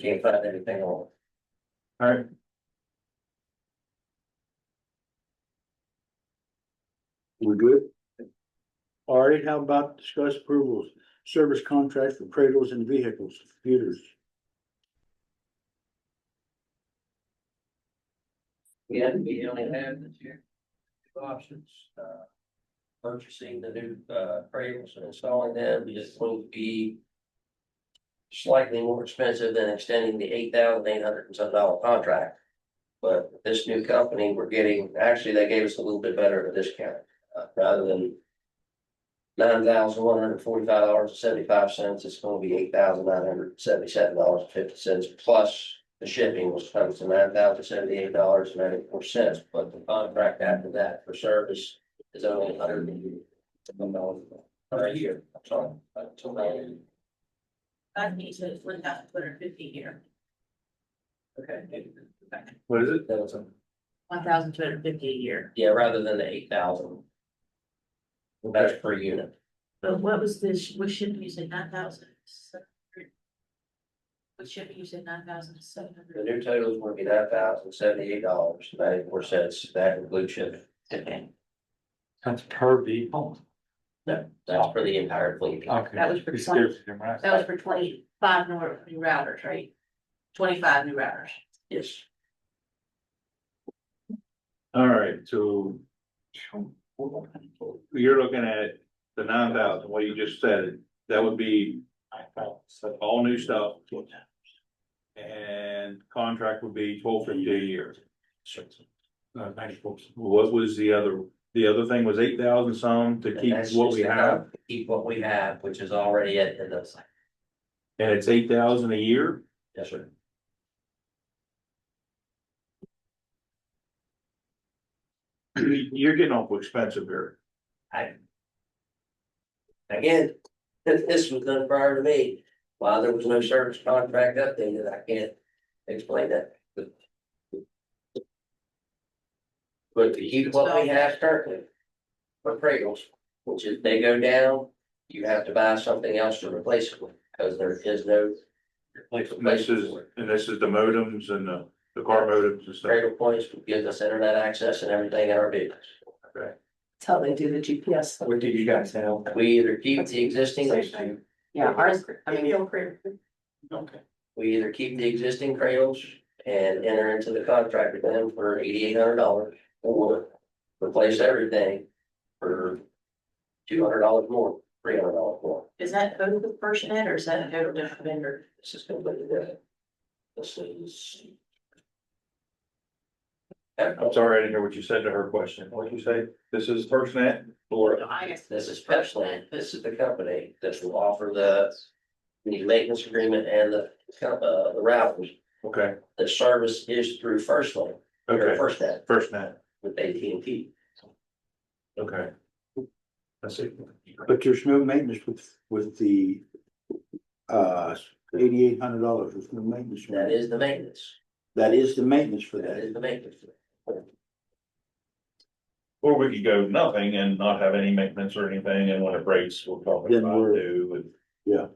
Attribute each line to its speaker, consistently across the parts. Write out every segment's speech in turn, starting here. Speaker 1: Can't find anything on.
Speaker 2: Alright. We're good? Alright, how about discuss approvals, service contracts for cradles and vehicles, computers?
Speaker 1: Yeah, we only have the two two options, uh. Purchasing the new uh cradles and installing them is going to be. Slightly more expensive than extending the eight thousand eight hundred and some dollar contract. But this new company, we're getting, actually, they gave us a little bit better of a discount, uh, rather than. Nine thousand one hundred forty-five dollars and seventy-five cents, it's gonna be eight thousand nine hundred seventy-seven dollars and fifty cents plus the shipping was comes to nine thousand seventy-eight dollars and ninety-four cents, but the contract after that for service is only a hundred and one dollars per year, I'm sorry, until then.
Speaker 3: I think so it's one thousand two hundred fifty here,
Speaker 1: Okay.
Speaker 2: What is it?
Speaker 1: That was, a-
Speaker 3: one thousand two hundred fifty a year.
Speaker 1: yeah, rather than the eight thousand, that's per unit.
Speaker 3: But what was this, what shipping you said nine thousand seven hundred? What shipping you said nine thousand seven
Speaker 1: The
Speaker 3: hundred?
Speaker 1: new total is gonna be nine thousand seventy-eight dollars and ninety-four cents, that includes shipping,
Speaker 3: Okay,
Speaker 4: That's per vehicle.
Speaker 1: that's for the entire fleet.
Speaker 4: Okay.
Speaker 3: That was for
Speaker 4: It's
Speaker 3: 20.
Speaker 4: different than mine.
Speaker 3: that was for twenty-five nor- new routers, right? Twenty-five new routers.
Speaker 1: Yes.
Speaker 2: Alright, so you're looking at the nine thousand, what you just said, that would be
Speaker 4: I felt so.
Speaker 2: all new stuff. And contract would be twelve fifty a year.
Speaker 4: Uh, ninety-four.
Speaker 2: What was the other, the other thing was eight thousand some to
Speaker 1: And
Speaker 2: keep
Speaker 1: that's
Speaker 2: what
Speaker 1: just
Speaker 2: we
Speaker 1: to
Speaker 2: have,
Speaker 1: Keep what we have, which is already at, in the,
Speaker 2: and it's eight thousand a year?
Speaker 1: yes, sir.
Speaker 2: You're getting awful expensive here.
Speaker 1: Again, this, this was done prior to me, while there was no service contract updated, I can't explain that. But to keep what we have currently. For Pringles, which is they go down, you have to buy something else to replace it with, because there is no.
Speaker 2: And this is, and this is the modems and the, the car modems and stuff.
Speaker 1: Cradle points will give us internet access and everything in our business.
Speaker 5: Till they do the GPS.
Speaker 4: What did you guys have?
Speaker 1: We either keep the existing,
Speaker 5: Yeah, ours, I mean,
Speaker 4: Okay.
Speaker 1: we either keep the existing cradles and enter into the contract with them for eighty-eight hundred dollars or replace everything for two hundred dollars more, three hundred dollars more.
Speaker 3: Is that total with FirstNet or is that a total different vendor?
Speaker 1: This is completely different. This is.
Speaker 2: I'm sorry, I didn't hear what you said to her question. What'd you say? This is FirstNet or?
Speaker 3: I guess
Speaker 1: This is Pepsland. This is the company that will offer the the maintenance agreement and the uh the routers.
Speaker 2: Okay,
Speaker 1: The service is through First Line, or
Speaker 2: okay,
Speaker 1: First Net
Speaker 2: FirstNet,
Speaker 1: with AT&T.
Speaker 2: okay. That's it.
Speaker 6: But your snow maintenance with, with the, uh, eighty-eight hundred dollars with snow maintenance.
Speaker 1: That is the maintenance.
Speaker 6: That is the maintenance for
Speaker 1: That
Speaker 6: that.
Speaker 1: is the maintenance.
Speaker 2: Or we could go nothing and not have any maintenance or anything, and when it breaks, we'll probably
Speaker 6: Then
Speaker 2: about
Speaker 6: we're-
Speaker 2: do, and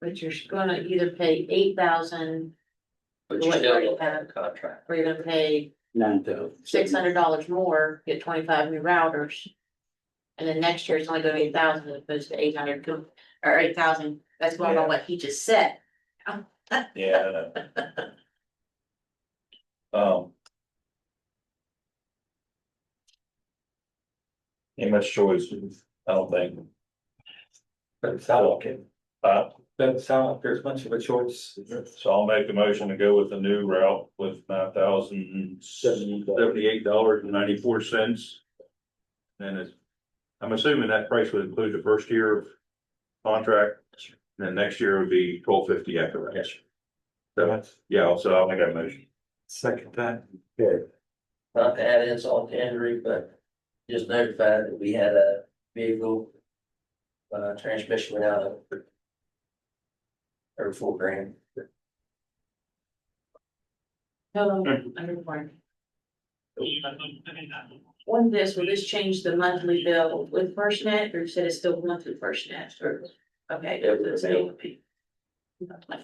Speaker 3: But you're gonna either pay eight thousand
Speaker 1: But you still don't have a contract.
Speaker 3: or you're gonna pay
Speaker 6: Nine thousand.
Speaker 3: six hundred dollars more, get twenty-five new routers. And then next year it's only gonna be a thousand as opposed to eight hundred, or eight thousand, that's what
Speaker 2: Yeah.
Speaker 3: on what he just said.
Speaker 2: Yeah. I know. Um. Ain't much choice, I don't think.
Speaker 4: Doesn't sound like it.
Speaker 2: Uh,
Speaker 4: Doesn't sound like there's much of a choice.
Speaker 2: so I'll make the motion to go with the new route with nine thousand seventy-eight dollars and ninety-four cents. And it's, I'm assuming that price would include the first year of contract. And then next year would be twelve fifty after that. So, yeah, so I'll make that motion.
Speaker 4: Second that.
Speaker 1: Not to add insult to injury, but just notified that we had a vehicle. Uh, transmission went out of. Every four grand.
Speaker 3: Hello, underwater. On this, will this change the monthly bill with FirstNet, or you said it's still monthly FirstNet, or, okay.
Speaker 1: Yeah, with the bill.